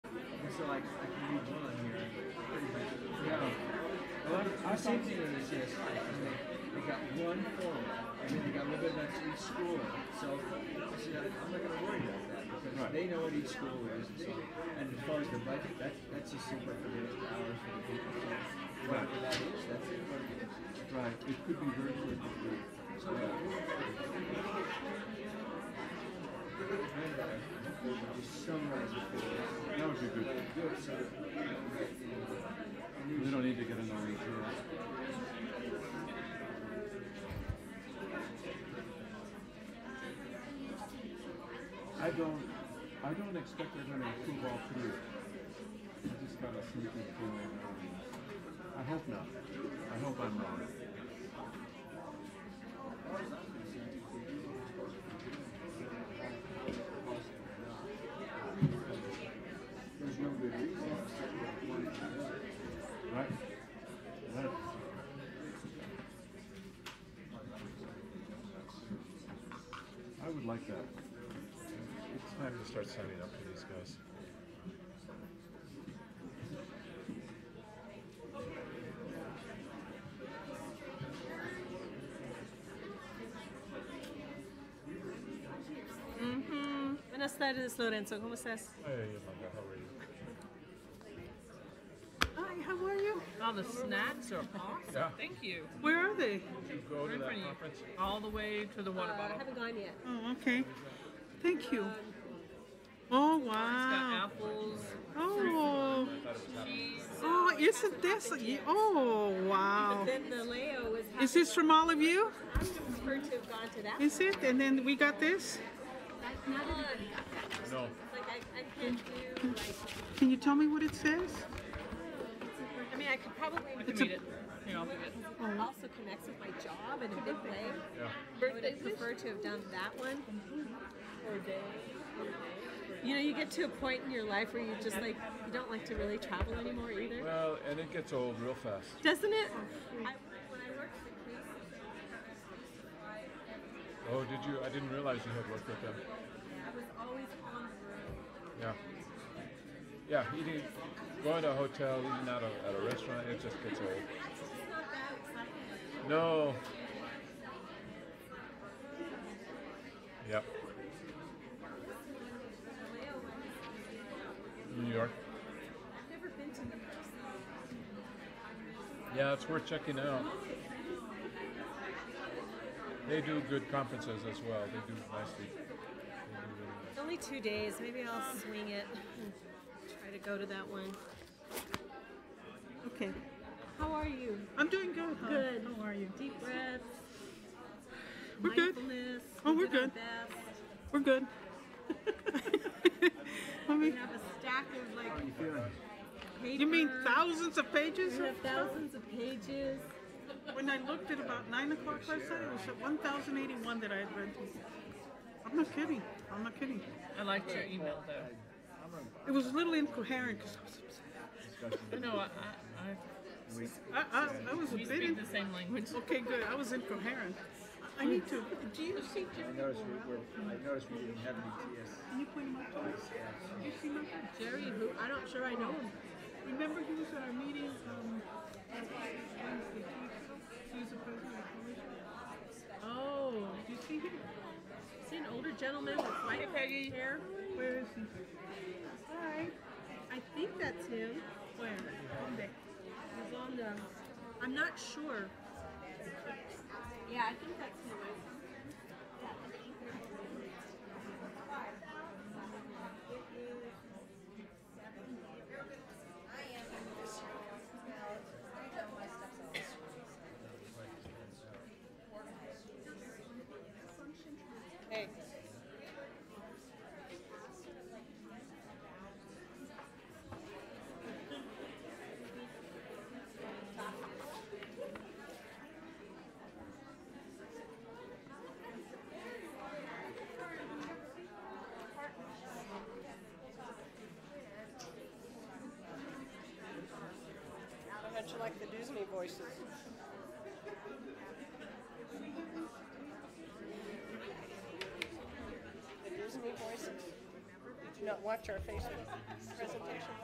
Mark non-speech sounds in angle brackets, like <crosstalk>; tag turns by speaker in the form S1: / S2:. S1: so like I can read one here. Pretty much. No. Well, I've seen it in this yes. and They they got one form, and then they got a little bit about each school. So I said, I'm not going to worry about that because
S2: Right.
S1: they know what each school is. And, so, and as far as the budget, that's that's just simply for the hours for the people. So whatever that is, that's it. What it is.
S2: Right. It could be very good.
S1: So, uh, just summarize it for us.
S2: That would be good.
S1: Good, so we don't get, you know, news
S2: We don't need to get another here. I don't, I don't expect they're gonna approve all three. I just got a sneaking feeling. I hope not. I hope I'm wrong.
S1: There's no good reason to separate one from the other.
S2: Right? Right. I would like that.
S3: It's time to start signing up for these guys.
S4: Mm, Buenas tardes, Lorenzo. ¿Cómo estás?
S3: Hey, Manga, how are you?
S4: Hi, how are you?
S5: Oh, the snacks are awesome.
S3: Yeah.
S5: Thank you.
S4: Where are they?
S3: Did you go to
S5: Right in front
S3: that
S5: of you.
S3: conference?
S5: All the way to the water
S4: I
S5: bottle.
S4: haven't gone yet.
S6: Oh, okay. Thank you. Oh,
S5: It's got
S6: wow.
S5: apples,
S6: Oh,
S5: cheese.
S6: oh, isn't this? Oh, wow.
S4: Then the Leo was happy.
S6: Is this from all of you?
S4: I'm preferred to have gone to that.
S6: Is it? And then we got this?
S4: one. Not everybody got that.
S3: No.
S4: Like I, I can't do like.
S6: Can you tell me what it says?
S4: I mean, I could probably.
S5: I can read it. Here, I'll read it.
S4: It also connects with my job in a big way.
S3: Yeah.
S4: I would have preferred to have done that one. Or day. You know, you get to a point in your life where you just like you don't like to really travel anymore either.
S3: Well, and it gets old real fast.
S4: Doesn't it? I, when I worked for Greece,
S3: Oh, did you? I didn't realize you had worked with them.
S4: I was always on the road.
S3: Yeah. Yeah, eating, going to a hotel, eating out of- at a restaurant, it just gets old.
S4: That's just not that exciting.
S3: No. Yep. New York.
S4: I've never been to New York City.
S3: Yeah, it's worth checking out. They do good conferences as well. They do nicely. They do really nice.
S4: It's Only two days. Maybe I'll swing it and try to go to that one.
S6: Okay.
S4: How are you?
S6: I'm doing good. hon.
S4: Good.
S6: How are you?
S4: Deep breaths.
S6: We're good.
S4: mindfulness,
S6: Oh,
S4: we
S6: we're
S4: did our
S6: good.
S4: best.
S6: We're good. <laughs> I
S4: We
S6: mean,
S4: have a stack of like
S1: How you feeling?
S4: paper.
S6: you mean thousands of pages?
S4: We have thousands of pages.
S6: When I looked at about nine o'clock last night, it was at one thousand eighty-one that I had read. I'm not kidding. I'm not kidding.
S5: I liked your email, though.
S6: It was a little incoherent because I was upset.
S5: I know, I, I,
S6: I, I, I was a
S5: I, we
S6: bit.
S5: speak
S6: In,
S5: the same language.
S6: <laughs> okay, good. I was incoherent. I need to. Do you see
S1: I
S6: Jerry?
S1: noticed we were, I noticed we didn't have any TS.
S6: Can you point him out to us? Do you see my guy?
S4: Jerry, who I don't sure I know him.
S6: Remember, he was at our meeting. Um, Wednesday. He was the president of the commission.
S4: Oh,
S6: Do you see him?
S4: is he an older gentleman with white hair?
S6: Where is he? Hi.
S4: I think that's him.
S6: Where? Monday.
S4: He's on the. I'm not sure. Yeah, I think that's him. Hey.
S7: How'd you like the Disney voices? The Disney voices? Did you not watch our Facebook presentation?